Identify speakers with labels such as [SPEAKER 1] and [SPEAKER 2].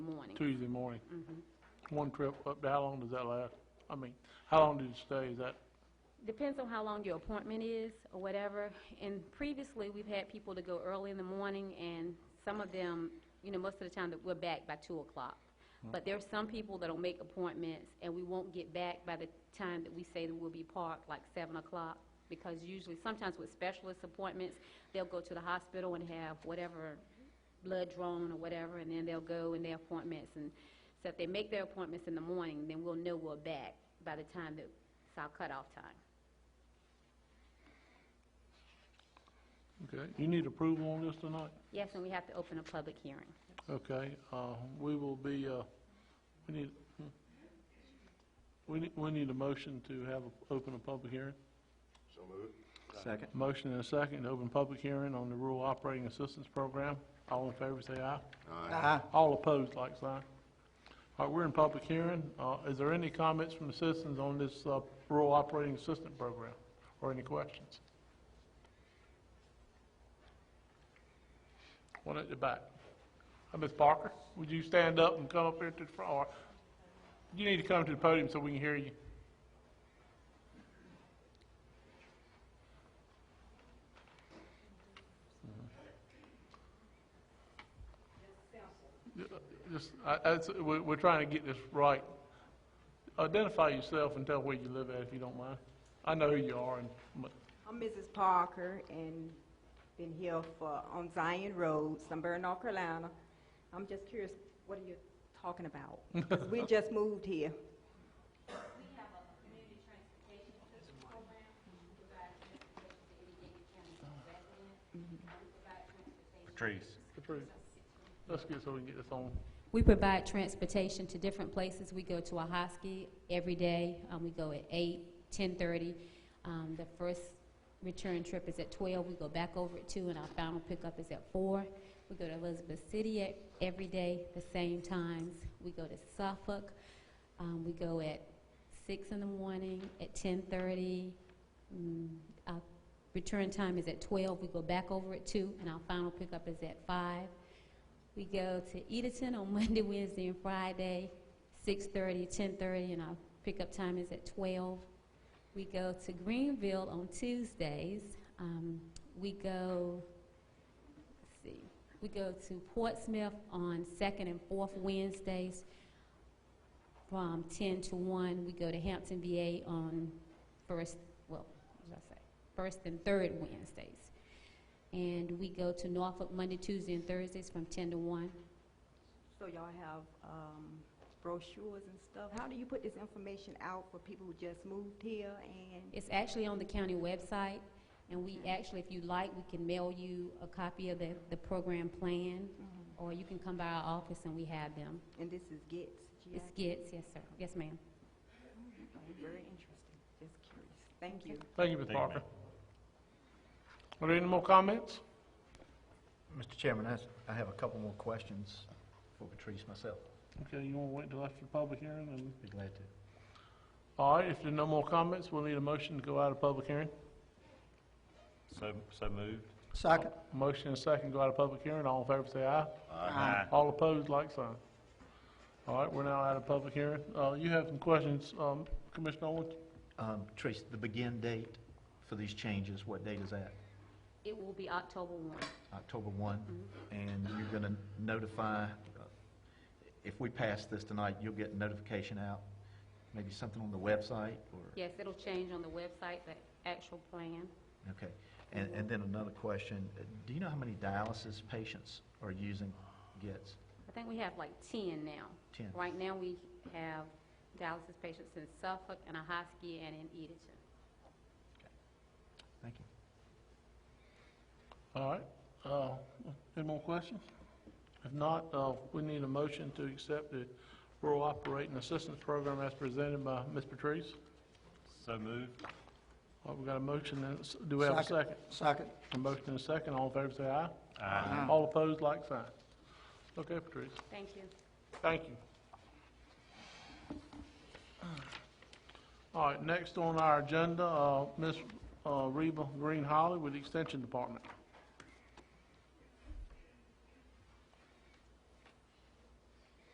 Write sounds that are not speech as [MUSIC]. [SPEAKER 1] Tuesday morning. One trip up, how long does that last? I mean, how long did you stay, is that,
[SPEAKER 2] Depends on how long your appointment is or whatever. And previously, we've had people to go early in the morning, and some of them, you know, most of the time, that we're back by 2 o'clock. But there are some people that'll make appointments, and we won't get back by the time that we say that we'll be parked, like 7 o'clock, because usually, sometimes with specialist appointments, they'll go to the hospital and have whatever blood drawn or whatever, and then they'll go in their appointments. And so if they make their appointments in the morning, then we'll know we're back by the time that it's our cutoff time.
[SPEAKER 1] okay, you need approval on this tonight?
[SPEAKER 2] Yes, and we have to open a public hearing.
[SPEAKER 1] Okay, uh, we will be, uh, we need, hmm. we need, we need a motion to have, a- open a public hearing.
[SPEAKER 3] So moved.
[SPEAKER 4] Second.
[SPEAKER 1] Motion and a second, to open public hearing on the Rural Operating Assistance Program. All in favor, say aye. All opposed, like sign. All right, we're in public hearing. Uh, Is there any comments from the citizens on this uh, rural operating assistance program, or any questions? One at the back. Uh, Ms. Parker, would you stand up and come up here to the front, or you need to come to the podium so we can hear you? Uh, Just, I, that's, we're, we're trying to get this right. Identify yourself and tell where you live at, if you don't mind. I know who you are, and, but-
[SPEAKER 5] I'm Mrs. Parker and been here for, on Zion Road, Sunburn, North Carolina. I'm just curious, what are you talking about? 'Cause we just moved here.
[SPEAKER 4] Patrice.
[SPEAKER 1] Patrice, let's get, so we can get this on.
[SPEAKER 2] We provide transportation to different places. We go to Ahoskie every day. Um, we go at 8, 10:30. Um, the first return trip is at 12. We go back over at 2, and our final pickup is at 4. We go to Elizabeth City at, every day, the same times. We go to Suffolk. Um, we go at 6 in the morning, at 10:30. Mm, our return time is at 12. We go back over at 2, and our final pickup is at 5. We go to Edenton on [LAUGHS] Monday, Wednesday, and Friday, 6:30, 10:30, and our pickup time is at 12. We go to Greenville on Tuesdays. Um, We go, let's see, we go to Portsmouth on second and fourth Wednesdays from 10 to 1. We go to Hampton VA on first, well, what did I say? First and third Wednesdays. And we go to Norfolk Monday, Tuesday, and Thursdays from 10 to 1.
[SPEAKER 5] So y'all have um, brochures and stuff. How do you put this information out for people who just moved here and?
[SPEAKER 2] It's actually on the county website, and we actually, if you like, we can mail you a copy of the, the program plan,
[SPEAKER 5] Mhm.
[SPEAKER 2] or you can come by our office and we have them.
[SPEAKER 5] And this is Gets,
[SPEAKER 2] It's
[SPEAKER 5] G-I-T?
[SPEAKER 2] GITS, yes, sir. Yes, ma'am.
[SPEAKER 5] Very interesting, just curious. Thank you.
[SPEAKER 1] Thank you, Ms.
[SPEAKER 4] Thank you,
[SPEAKER 1] Parker. Are there any more comments?
[SPEAKER 6] Mr. Chairman, I s- I have a couple more questions for Patrice myself.
[SPEAKER 1] Okay, you want to wait till after the public hearing, and,
[SPEAKER 6] Be glad to.
[SPEAKER 1] all right, if there are no more comments, we'll need a motion to go out of public hearing.
[SPEAKER 4] So, so moved.
[SPEAKER 6] Second.
[SPEAKER 1] Motion and second, go out of public hearing, all in favor, say aye.
[SPEAKER 4] Aye.
[SPEAKER 1] All opposed, like sign. All right, we're now out of public hearing. Uh, you have some questions, um, Commissioner Owens?
[SPEAKER 6] Um, Patrice, the begin date for these changes, what date is that?
[SPEAKER 2] It will be October 1.
[SPEAKER 6] October 1? And you're going to notify, uh, if we pass this tonight, you'll get notification out, maybe something on the website or?
[SPEAKER 2] Yes, it'll change on the website, the actual plan.
[SPEAKER 6] Okay. And, and then another question, uh, do you know how many dialysis patients are using E GITS?
[SPEAKER 2] I think we have like 10 now.
[SPEAKER 6] 10.
[SPEAKER 2] Right now, we have dialysis patients in Suffolk and Ahoskie and in Edenton.
[SPEAKER 6] Thank you.
[SPEAKER 1] All right, uh, any more questions? If not, uh, we need a motion to accept the rural operating assistance program as presented by Ms. Patrice.
[SPEAKER 4] So moved.
[SPEAKER 1] All right, we got a motion, and s- do we have a second?
[SPEAKER 6] Second.
[SPEAKER 1] A motion and a second, all in favor say aye.
[SPEAKER 4] Aye.
[SPEAKER 1] All opposed, like sign. Okay, Patrice,
[SPEAKER 2] Thank you.
[SPEAKER 1] thank you. All right, next on our agenda, uh, Ms. uh, Reba Green Holly with the Extension Department.